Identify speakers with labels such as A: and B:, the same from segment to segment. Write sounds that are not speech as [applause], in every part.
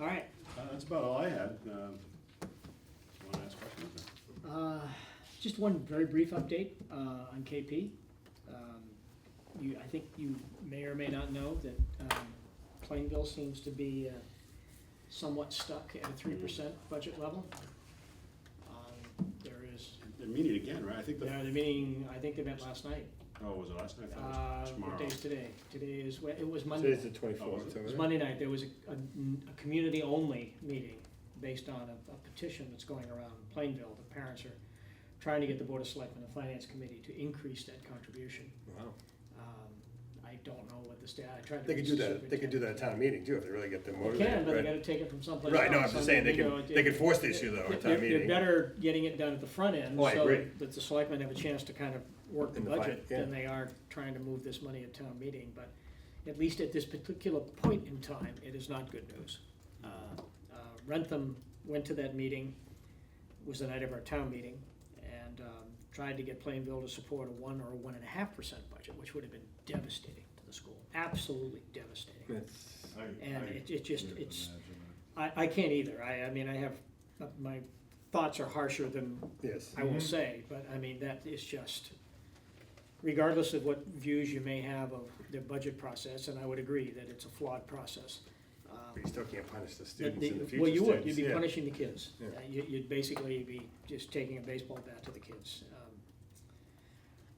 A: All right,
B: Uh, That's about all I had. Um, Want to ask questions?
A: uh, just one very brief update, uh, on KP. Um, You, I think you may or may not know that, um, Plainville seems to be uh, somewhat stuck at a three percent budget level. Um, There is,
B: They're meeting again, right? I think the,
A: they're meeting, I think they met last night.
B: oh, was it last night? I
A: Uh,
B: thought it was
A: what
B: tomorrow.
A: day is today? Today is, Wed- it was Monday.
C: Today's the twenty-fourth,
A: It was Monday night, there was a, a, a community-only meeting based on a, a petition that's going around in Plainville. The parents are trying to get the Board of Selectmen and Finance Committee to increase that contribution.
C: Wow.
A: Um, I don't know what the stat, I tried to.
C: They could
A: reach
C: do
A: the
C: that, they could do that at town meeting too, if they really get them
A: superintendent. They can,
C: motivated,
A: but they
C: right?
A: gotta take it from someplace else.
C: Right, no, I'm
A: I
C: just saying, they
A: mean, you
C: can,
A: know,
C: they could force the issue though
A: they're-
C: at town
A: They're
C: meeting.
A: better getting it done at the front end.
C: Oh, I agree.
A: So that the selectmen have a chance to kind of work the
C: In the fi-
A: budget than
C: yeah.
A: they are trying to move this money at town meeting. But at least at this particular point in time, it is not good news. Uh, uh, Rentham went to that meeting, was the night of our town meeting, and um, tried to get Plainville to support a one or a one and a half percent budget, which would have been devastating to the school, absolutely devastating.
C: That's-
D: I-
A: And
D: I
A: it, it just,
D: couldn't
A: it's,
D: imagine
A: I, I can't either. I, I mean, I have, uh, my thoughts are harsher than
C: Yes, Mm-hmm.
A: I will
D: Mhm.
A: say, but I mean, that is just, regardless of what views you may have of the budget process, and I would agree that it's a flawed process. um,
C: but you still can't punish the
A: but
C: students
A: the-
C: and the future students.
A: Well, you would, you'd be
C: Yeah.
A: punishing the kids.
C: Yeah.
A: Uh, you- You'd basically be just taking a baseball bat to the kids. Um,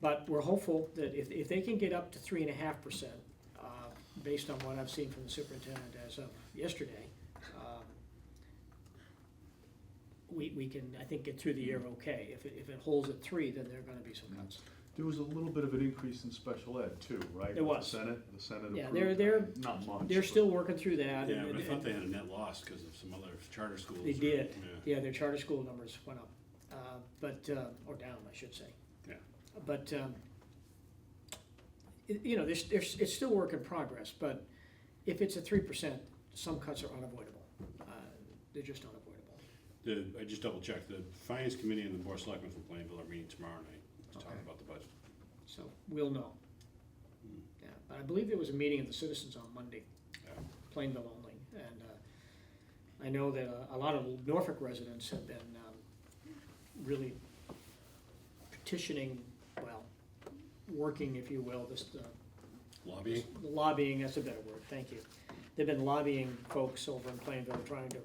A: But we're hopeful that if, if they can get up to three and a half percent, uh, based on what I've seen from the superintendent as of yesterday, um, we, we can, I think, get through the year
C: Mm-hmm.
A: okay. If it, if it holds at three, then there are gonna be some cuts.
D: that. There was a little bit of an increase in special ed too, right?
A: There
D: With
A: was.
D: The Senate, the Senate
A: Yeah,
D: approved.
A: they're- they're-
D: that. Not much.
A: They're
D: but-
A: still working through that.
B: Yeah,
A: and-
B: but I thought they had a net loss because of some other charter schools.
A: They
B: or-
A: did.
B: yeah.
A: Yeah, their charter school numbers went up, uh, but, uh, or down, I should say.
B: Yeah.
A: But, um, it- you know, there's, there's, it's still work in progress, but if it's a three percent, some cuts are unavoidable. Uh, They're just unavoidable.
B: The, I just double checked, the finance committee and the board of selectmen from Plainville are meeting tomorrow night to talk
A: Okay.
B: about the budget.
A: So we'll know. Yeah, but I believe there was a meeting of the citizens on Monday,
B: Yeah.
A: Plainville only, and uh, I know that uh, a- a lot of Norfolk residents have been um, really petitioning, well, working, if you will, this, uh,
B: Lobbying?
A: lobbying, that's a better word, thank you. They've been lobbying folks over in Plainville, trying to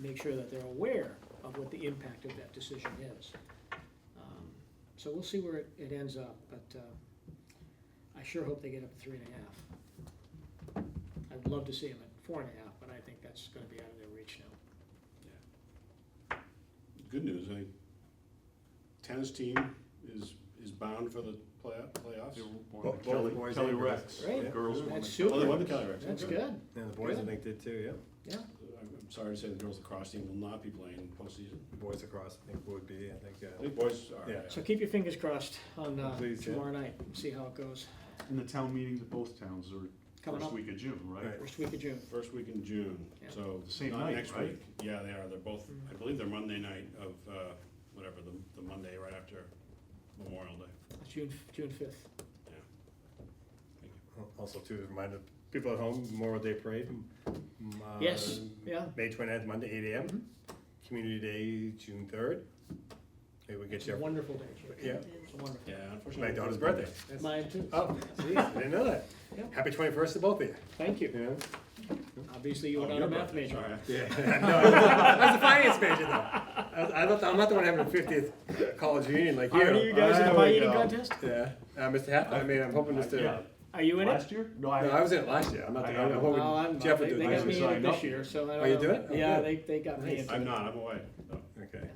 A: make sure that they're aware of what the impact of that decision is. Um, So we'll see where it, it ends up, but, uh, I sure hope they get up to three and a half. I'd love to see them at four and a half, but I think that's gonna be out of their reach now.
B: Good news, I, tennis team is, is bound for the play playoffs.
D: They were born
C: Bo-
D: in
C: both
D: Oh, Kelly,
C: boys
D: Kelly
C: and girls.
D: Rex.
A: Right.
D: The Girls won.
A: That's
D: the-
B: Oh, they won the
A: super,
B: Kelly Rex.
A: that's
B: okay.
A: good,
C: And the boys, I think, did too,
A: yeah.
C: yeah.
B: I'm I'm sorry to say the girls lacrosse team will not be playing postseason.
C: Boys across, I think, would be, I think,
B: I
C: uh,
B: think boys are.
C: Yeah.
A: So keep your fingers crossed on, uh,
C: Please, yeah.
A: tomorrow night, and see how it goes,
D: And the town meetings of both towns are
A: coming
D: first
A: up,
D: week of June, right?
C: Right.
A: first week of June.
B: First week in June,
A: Yeah. Mm-hmm.
B: so.
D: Same
B: not
D: night,
B: next
D: right?
B: week. Yeah, they are, they're both, I believe they're Monday night of, uh, whatever, the, the Monday right after Memorial Day.
A: June, June fifth.
C: also too, a reminder, people at home, Memorial Day Parade. m- uh,
A: Yes, yeah. Mm-hmm.
C: May twenty-ninth, Monday, eight AM, Community Day, June third. Maybe we
A: It's
C: get
A: a
C: you,
A: wonderful day, Chip.
C: yeah,
A: It's a wonderful.
B: Yeah, unfortunately.
C: my daughter's birthday.
A: Mine too. Uh,
C: Oh, geez, I didn't know that.
A: Yeah.
C: Happy twenty-first to both of you.
A: Thank you.
C: Yeah.
A: Obviously, you were
B: Oh,
A: not
B: your
A: a math
B: birthday,
A: major.
B: sorry.
C: Yeah. No, [laughs] I was a finance major though. I was- I'm not, the- I'm not the one having a fiftieth college reunion like you.
A: Are you guys in
D: There
A: the
D: we
A: pie eating
D: go.
A: contest?
C: Yeah, uh, Mr. Hat, I mean, I'm hoping this to,
D: Yeah.
C: no,
A: Are you in it?
D: Last year? No,
C: I
D: I,
C: was in it last year, I'm not, the-
D: I-
C: I'm
A: No, I'm
C: hoping
A: not.
C: Jeff
A: They
C: would do
A: they
D: I
C: it.
A: got
D: actually
A: me in it
D: signed
A: this
D: up.
A: year, so I
C: Oh, you
A: don't
C: do
A: know.
C: it? Oh,
A: Yeah,
C: good.
A: they, they got me
C: Nice.
A: into it.
B: I'm not, I'm away. No.
C: Okay,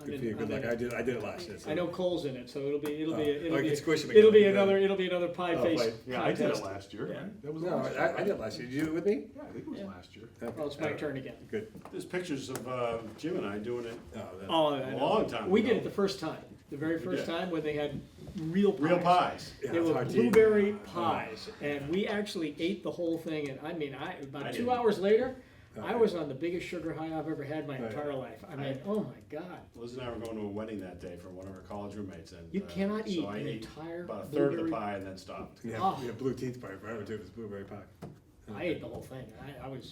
A: I'm
C: good
A: in-
C: for you,
A: I'm
C: good luck,
A: in.
C: I did, I did it last year. so-
A: I know Cole's in it, so it'll be, it'll be,
C: Oh,
A: it'll
C: I
A: be,
C: can squish him
A: it'll
C: again.
A: be another, it'll be another pie
C: Oh,
A: face
C: fight.
D: yeah, I did it
A: contest.
D: last year.
A: Yeah.
D: That was
C: No,
D: last year.
C: I, I did last year, did you do it with me?
D: Yeah, I think it was
A: Yeah.
D: last year.
A: Well, Oh, it's my turn again.
C: Good.
B: There's pictures of, uh, Jim and I doing it
C: Oh, that-
A: Oh,
B: a
A: I know.
B: long time ago.
A: we did it the first time, the very first
B: did.
A: time when they had real pies.
B: Real pies.
C: yeah,
A: They
C: it's
A: were
C: hard to eat.
A: blueberry pies, and we actually ate the whole thing, and I mean, I,
B: I
A: about two
B: didn't. Uh,
A: hours later, I
C: Okay.
A: was on the biggest sugar high I've ever had in my
C: Right.
A: entire life. I mean,
B: I-
A: oh my god.
B: Liz and I were going to a wedding that day for one of our college roommates and.
A: You
B: uh,
A: cannot eat
B: So I
A: an
B: ate
A: entire
B: about a third of the
A: blueberry-
B: pie and then stopped.
C: Yeah,
A: Oh.
C: yeah, blue teeth pie, I would do it with blueberry pie.
A: I ate the whole thing. I, I was